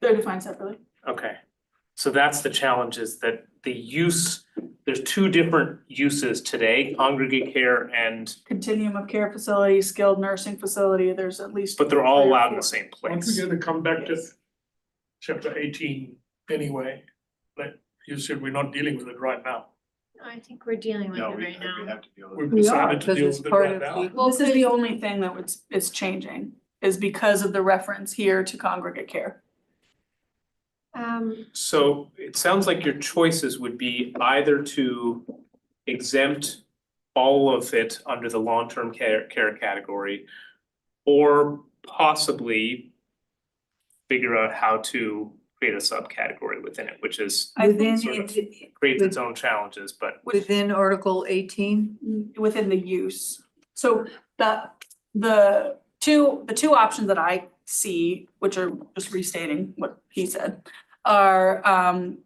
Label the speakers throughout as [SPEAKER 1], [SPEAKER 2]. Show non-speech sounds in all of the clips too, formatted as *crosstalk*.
[SPEAKER 1] They're defined separately.
[SPEAKER 2] Okay, so that's the challenge is that the use, there's two different uses today, congregate care and,
[SPEAKER 1] Continuum of care facility, skilled nursing facility, there's at least.
[SPEAKER 2] but they're all
[SPEAKER 1] three or
[SPEAKER 2] allowed in
[SPEAKER 1] four.
[SPEAKER 2] the same
[SPEAKER 3] Once we
[SPEAKER 2] place.
[SPEAKER 3] get to come back to
[SPEAKER 1] Yes.
[SPEAKER 3] chapter eighteen anyway, like you said, we're not dealing with it right now.
[SPEAKER 4] I think we're dealing with it
[SPEAKER 5] No, we, we
[SPEAKER 4] right now.
[SPEAKER 5] have to deal with
[SPEAKER 3] We've
[SPEAKER 5] it.
[SPEAKER 6] We are,
[SPEAKER 3] decided to
[SPEAKER 6] because
[SPEAKER 3] deal
[SPEAKER 6] it's
[SPEAKER 3] with it
[SPEAKER 6] part
[SPEAKER 3] right
[SPEAKER 6] of
[SPEAKER 3] now.
[SPEAKER 6] the,
[SPEAKER 4] Well,
[SPEAKER 1] This is
[SPEAKER 4] could-
[SPEAKER 1] the only thing that was, is changing, is because of the reference here to congregate care.
[SPEAKER 4] Um,
[SPEAKER 2] So it sounds like your choices would be either to exempt all of it under the long-term care care category or possibly figure out how to create a subcategory within it, which is
[SPEAKER 1] I
[SPEAKER 6] within,
[SPEAKER 1] think
[SPEAKER 2] sort of-
[SPEAKER 6] it-
[SPEAKER 2] creates its own challenges, but
[SPEAKER 6] within Article eighteen,
[SPEAKER 1] within the use. So the, the two, the two options that I see, which are just restating what he said, are um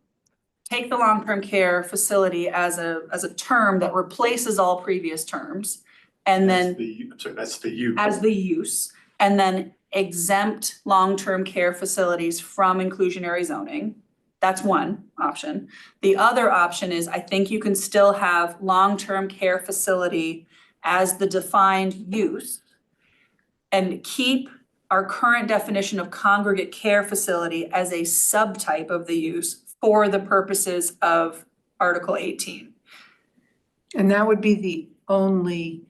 [SPEAKER 1] take the long-term care facility as a, as a term that replaces all previous terms and
[SPEAKER 5] That's
[SPEAKER 1] then
[SPEAKER 5] the, u- I'm sorry, that's the you.
[SPEAKER 1] as the use and then exempt long-term care facilities from inclusionary zoning. That's one option. The other option is I think you can still have long-term care facility as the defined use and keep our current definition of congregate care facility as a subtype of the use for the purposes of Article eighteen.
[SPEAKER 6] and that would be the only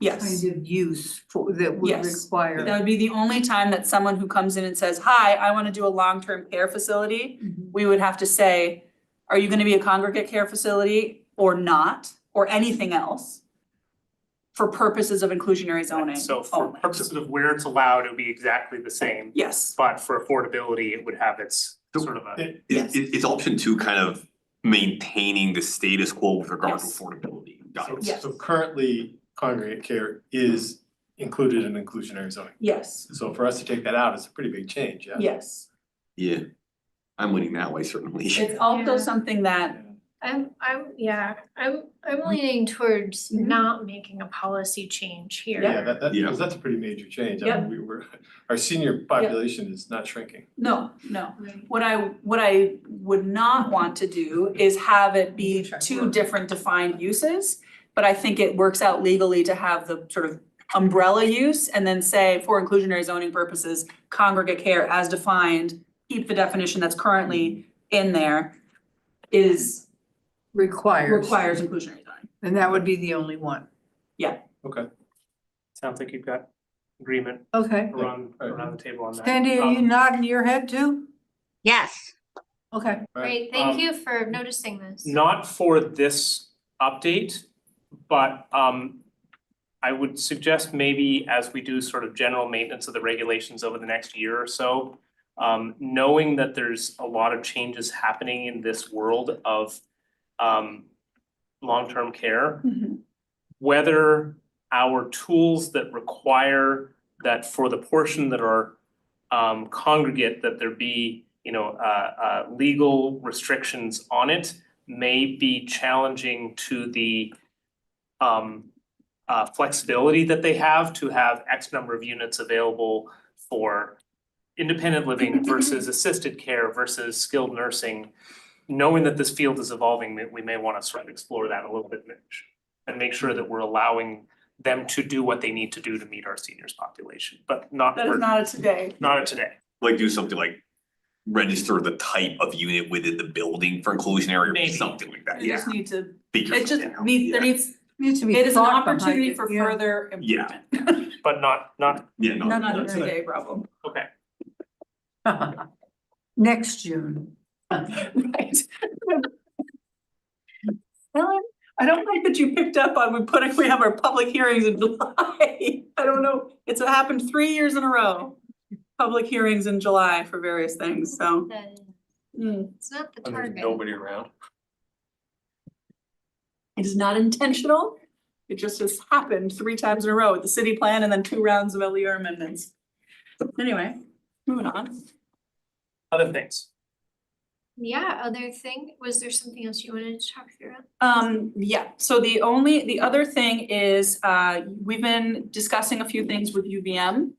[SPEAKER 1] Yes.
[SPEAKER 6] kind of use for, that would
[SPEAKER 1] Yes.
[SPEAKER 6] require.
[SPEAKER 1] That would be the only time that someone who comes in and says, hi, I wanna do a long-term care facility,
[SPEAKER 6] Mhm.
[SPEAKER 1] we would have to say, are you gonna be a congregate care facility or not, or anything else? For purposes of inclusionary
[SPEAKER 2] Right,
[SPEAKER 1] zoning
[SPEAKER 2] So for
[SPEAKER 1] only.
[SPEAKER 2] purposes of where it's allowed, it would be exactly the same,
[SPEAKER 1] Yes,
[SPEAKER 2] but for affordability, it would have its sort of a,
[SPEAKER 5] It-
[SPEAKER 1] Yes.
[SPEAKER 7] It it it's option two, kind of maintaining the status quo with regard to
[SPEAKER 1] Yes.
[SPEAKER 7] affordability. Got
[SPEAKER 5] so-
[SPEAKER 7] it.
[SPEAKER 1] Yes.
[SPEAKER 5] So currently, congregate care is included in inclusionary zoning.
[SPEAKER 1] yes,
[SPEAKER 5] So for us to take that out is a pretty big change, yeah?
[SPEAKER 1] yes.
[SPEAKER 7] Yeah, I'm winning that way certainly.
[SPEAKER 1] It's also
[SPEAKER 4] Yeah.
[SPEAKER 1] something that,
[SPEAKER 4] I'm, I'm, yeah, I'm, I'm leaning towards
[SPEAKER 1] Mhm.
[SPEAKER 4] not making a policy change here.
[SPEAKER 5] Yeah, that that,
[SPEAKER 7] Yeah.
[SPEAKER 5] because that's a pretty major change. I
[SPEAKER 1] Yeah.
[SPEAKER 5] mean, we were, our senior population is not shrinking.
[SPEAKER 1] no, no.
[SPEAKER 4] Right.
[SPEAKER 1] What I, what I would not want to do is have it be two different defined uses. But I think it works out legally to have the sort of umbrella use and then say for inclusionary zoning purposes, congregate care as defined, keep the definition that's currently in there is
[SPEAKER 6] Requires.
[SPEAKER 1] requires inclusionary zoning.
[SPEAKER 6] And that would be the only one.
[SPEAKER 2] sounds like you've got agreement
[SPEAKER 6] Okay.
[SPEAKER 2] around around the table on that.
[SPEAKER 6] Sandy, are you
[SPEAKER 2] Um,
[SPEAKER 6] nodding your head too?
[SPEAKER 8] Yes.
[SPEAKER 6] Okay.
[SPEAKER 5] All right,
[SPEAKER 4] Great, thank
[SPEAKER 2] Um,
[SPEAKER 4] you for noticing this.
[SPEAKER 2] Not for this update, but um I would suggest maybe as we do sort of general maintenance of the regulations over the next year or so, um knowing that there's a lot of changes happening in this world of um long-term care, whether our tools that require that for the portion that are um congregate, that there be, you know, uh uh legal restrictions on it may be challenging to the um uh flexibility that they have to have X number of units available for independent living versus assisted care versus skilled nursing. Knowing that this field is evolving, we- we may wanna sort of explore that a little bit, Mitch and make sure that we're allowing them to do what they need to do to meet our seniors population, but not
[SPEAKER 1] That
[SPEAKER 2] for,
[SPEAKER 1] is not a today.
[SPEAKER 2] not today.
[SPEAKER 7] *laughs* Like do something like register the type of unit within the building for inclusionary
[SPEAKER 2] Maybe.
[SPEAKER 7] or something like that,
[SPEAKER 1] We
[SPEAKER 7] yeah.
[SPEAKER 1] just need to,
[SPEAKER 7] Figure
[SPEAKER 1] it just
[SPEAKER 7] something out,
[SPEAKER 1] needs, there
[SPEAKER 7] yeah.
[SPEAKER 1] needs,
[SPEAKER 6] Needs to be
[SPEAKER 1] it is an
[SPEAKER 6] thought behind
[SPEAKER 1] opportunity
[SPEAKER 6] it,
[SPEAKER 1] for
[SPEAKER 6] yeah.
[SPEAKER 1] further
[SPEAKER 7] Yeah.
[SPEAKER 1] improvement.
[SPEAKER 2] But not, not,
[SPEAKER 7] Yeah, no.
[SPEAKER 1] Not a
[SPEAKER 7] that's it.
[SPEAKER 1] today problem.
[SPEAKER 2] okay,
[SPEAKER 6] *laughs* Next June.
[SPEAKER 1] *laughs* Right. Ellen, I don't like that you picked up on, we put, we have our public hearings in July. *laughs* I don't know, it's happened three years in a row. Public hearings in July for various things, so. hmm.
[SPEAKER 4] Then
[SPEAKER 1] It
[SPEAKER 4] It's not the
[SPEAKER 5] And there's
[SPEAKER 4] target.
[SPEAKER 5] nobody around.
[SPEAKER 1] is not intentional. It just has happened three times in a row with the city plan and then two rounds of LER amendments. Anyway, moving on.
[SPEAKER 2] other things.
[SPEAKER 4] Yeah, other thing, was there something else you wanted to talk through?
[SPEAKER 1] Um, yeah, so the only, the other thing is, uh, we've been discussing a few things with UVM.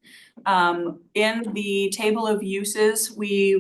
[SPEAKER 1] Um, in the table of uses, we